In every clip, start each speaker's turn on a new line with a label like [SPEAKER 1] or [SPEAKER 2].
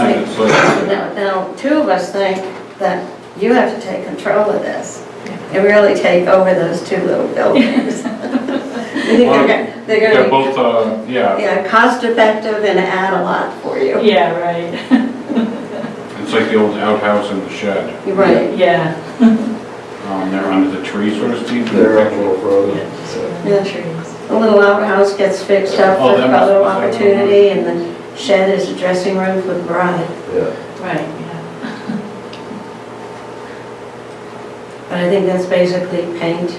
[SPEAKER 1] Right.
[SPEAKER 2] That's what-
[SPEAKER 1] Now, now, two of us think that you have to take control of this and really take over those two little buildings. They're gonna- They're
[SPEAKER 2] They're
[SPEAKER 1] gonna,
[SPEAKER 2] both, uh,
[SPEAKER 1] be,
[SPEAKER 2] yeah,
[SPEAKER 1] yeah, cost effective and add a lot for you.
[SPEAKER 3] Yeah, right,
[SPEAKER 2] it's like the old outhouse and the shed.
[SPEAKER 1] You're Right,
[SPEAKER 3] yeah.
[SPEAKER 2] Um, They're under the tree, so to speak.
[SPEAKER 4] They're up a little further.
[SPEAKER 1] Yeah. a little outhouse gets fixed up
[SPEAKER 2] Oh,
[SPEAKER 1] for
[SPEAKER 2] that
[SPEAKER 1] a
[SPEAKER 2] must-
[SPEAKER 1] little
[SPEAKER 2] was that one?
[SPEAKER 1] opportunity and the shed is a dressing room for the bride.
[SPEAKER 4] Yeah,
[SPEAKER 3] Right, yeah.
[SPEAKER 1] But I think that's basically paint,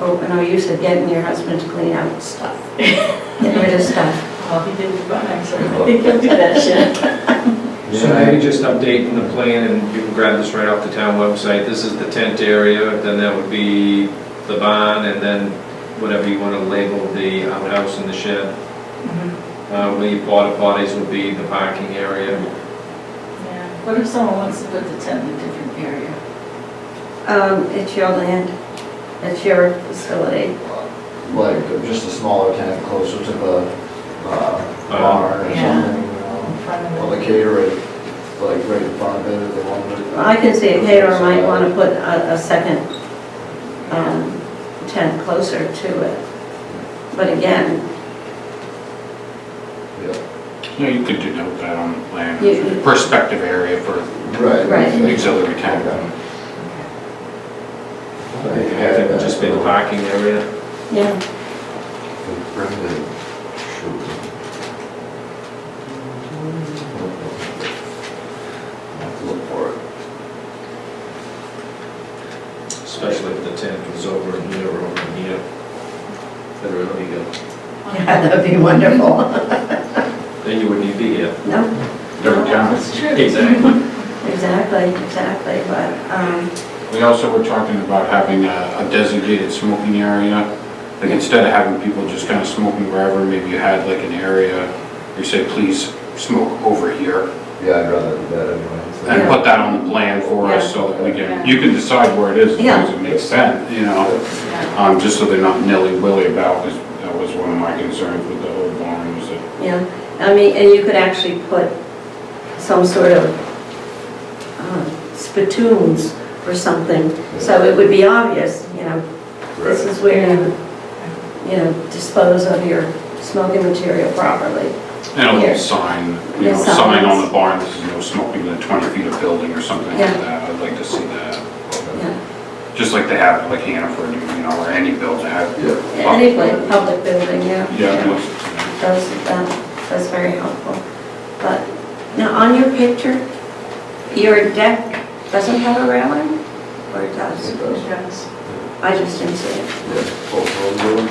[SPEAKER 1] oh, no use of getting your husband to clean out stuff. Get rid of stuff.
[SPEAKER 3] Well, he did the barn, so I think he'll do that shit.
[SPEAKER 5] So maybe just updating the plan, and you can grab this right off the town website, this is the tent area, then that would be the barn, and then whatever you want to label the outhouse and the shed.
[SPEAKER 3] Mhm,
[SPEAKER 5] Uh, Where your porta potties would be the parking area.
[SPEAKER 3] yeah. What if someone wants to put the tent in a different area?
[SPEAKER 1] Um, it's your land, it's your facility.
[SPEAKER 4] like uh, just a smaller tent closer to the
[SPEAKER 5] Oh,
[SPEAKER 4] uh, barn or
[SPEAKER 3] Yeah.
[SPEAKER 4] something. you know.
[SPEAKER 3] In front of
[SPEAKER 4] Well,
[SPEAKER 3] it?
[SPEAKER 4] the catering, like right in front of it, if they wanted it.
[SPEAKER 1] I can see a caterer might want to put a, a second um, tent closer to it. But again,
[SPEAKER 4] Yeah,
[SPEAKER 2] Yeah, you could denote that on the
[SPEAKER 1] You-
[SPEAKER 2] plan, perspective area for
[SPEAKER 4] Right.
[SPEAKER 1] Right.
[SPEAKER 2] auxiliary tent.
[SPEAKER 5] I think it would just be the parking area.
[SPEAKER 1] yeah,
[SPEAKER 4] Look for it.
[SPEAKER 5] Especially if the tent was over in here or over in here. That'd really be good.
[SPEAKER 1] yeah, that'd be wonderful.
[SPEAKER 5] Then you wouldn't even be here.
[SPEAKER 1] No,
[SPEAKER 2] Different towns.
[SPEAKER 3] Oh, That's true.
[SPEAKER 5] Exactly.
[SPEAKER 1] exactly, exactly, but, um,
[SPEAKER 2] We also were talking about having a a designated smoking area. Like instead of having people just kind of smoking wherever, maybe you had like an area, where you say, please smoke over here.
[SPEAKER 4] Yeah, I'd rather do that anyway. so-
[SPEAKER 2] And put that on the plan for us so that we can, you can decide where it is as long as it makes sense, you know?
[SPEAKER 3] Yeah.
[SPEAKER 2] Um, just so they're not nilly-willy about, 'cause that was one of my concerns with the whole barn was that
[SPEAKER 1] yeah. I mean, and you could actually put some sort of um, spittoons or something, so it would be obvious, you know, This is where you, you know, dispose of your smoking material properly.
[SPEAKER 2] And a
[SPEAKER 1] Here.
[SPEAKER 2] little sign, you
[SPEAKER 1] Yeah,
[SPEAKER 2] know, sign on
[SPEAKER 1] signs.
[SPEAKER 2] the barn, this is no smoking within 20 feet of building or something like
[SPEAKER 1] Yeah.
[SPEAKER 2] that. I'd like to see that.
[SPEAKER 1] Yeah.
[SPEAKER 2] Just like they have at like Hannaford, you know, or any building have.
[SPEAKER 4] Yeah,
[SPEAKER 1] Anyway, public building, yeah.
[SPEAKER 2] Yeah, most-
[SPEAKER 1] Those, that, that's very helpful. But now, on your picture, your deck doesn't have a railing? Or it does?
[SPEAKER 4] it does.
[SPEAKER 3] Yes.
[SPEAKER 1] I just didn't see it.
[SPEAKER 4] Yeah, both of them doing.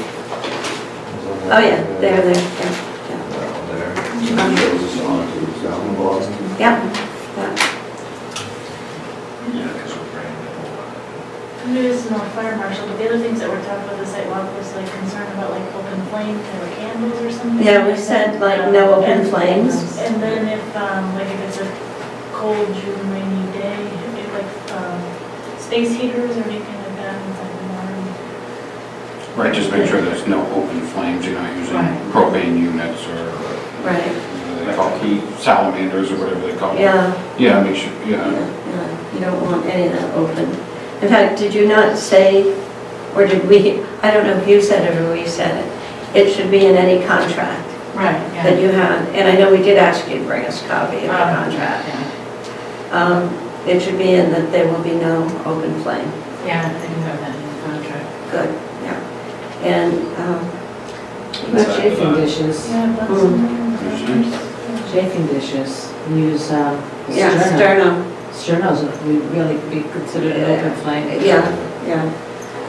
[SPEAKER 1] Oh, yeah, Uh-huh. there, there, yeah,
[SPEAKER 4] Down there. And it goes on to down the bottom.
[SPEAKER 1] yeah. Yeah, yeah.
[SPEAKER 5] Yeah, because we're bringing the whole
[SPEAKER 6] Maybe this is more fire marshal, but the other things that were talked about this sidewalk was like concern about like open flame kind of candles or something. Um,
[SPEAKER 1] Yeah, we said, like, no open flames.
[SPEAKER 6] And then if, um, like if it's a cold June rainy day, if like, um, space heaters or anything like that inside the barn.
[SPEAKER 2] Right, just make sure there's no open flames, you're not using
[SPEAKER 3] Right.
[SPEAKER 2] propane units or what
[SPEAKER 1] right,
[SPEAKER 2] do they call heat salamanders or whatever they call them.
[SPEAKER 1] yeah,
[SPEAKER 2] Yeah, make sure,
[SPEAKER 1] yeah,
[SPEAKER 2] yeah.
[SPEAKER 1] yeah. You don't want any of that open. In fact, did you not say, or did we, I don't know if you said it or we said it, it should be in any contract.
[SPEAKER 3] Right, yeah.
[SPEAKER 1] that you had, and I know we did ask you to bring us a copy of the
[SPEAKER 3] Um,
[SPEAKER 1] contract.
[SPEAKER 3] yeah.
[SPEAKER 1] Um, It should be in that there will be no open flame.
[SPEAKER 3] Yeah, they do have that in the contract.
[SPEAKER 1] Good, yeah. And, um,
[SPEAKER 5] lot. inside
[SPEAKER 7] Shaking
[SPEAKER 5] the barn.
[SPEAKER 7] dishes,
[SPEAKER 6] Yeah, that's.
[SPEAKER 1] Mm.
[SPEAKER 7] shaking dishes, use, um,
[SPEAKER 1] yeah,
[SPEAKER 7] sterno.
[SPEAKER 1] sterno,
[SPEAKER 7] Sternos would really be considered an open flame.
[SPEAKER 1] yeah, yeah.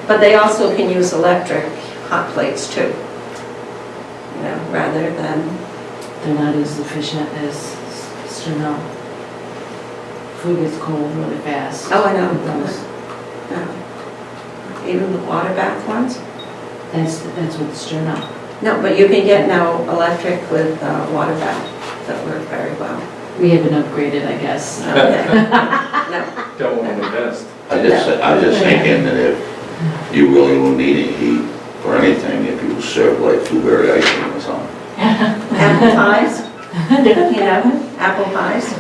[SPEAKER 1] But they also can use electric hot plates too, you know, rather than,
[SPEAKER 7] They're not as efficient as sterno. Food gets cold really fast.
[SPEAKER 1] Oh, I know.
[SPEAKER 7] It goes-
[SPEAKER 1] uh, um, even the water bath ones.
[SPEAKER 7] That's, that's what sterno.
[SPEAKER 1] No, but you can get now electric with uh, water bath that work very well.
[SPEAKER 7] We haven't upgraded, I guess.
[SPEAKER 1] Okay. No,
[SPEAKER 5] Don't want to invest.
[SPEAKER 8] I just, I was just thinking that if you really will need any heat or anything, if you serve like blueberry ice cream or something,
[SPEAKER 1] apple pies, you know, apple pies.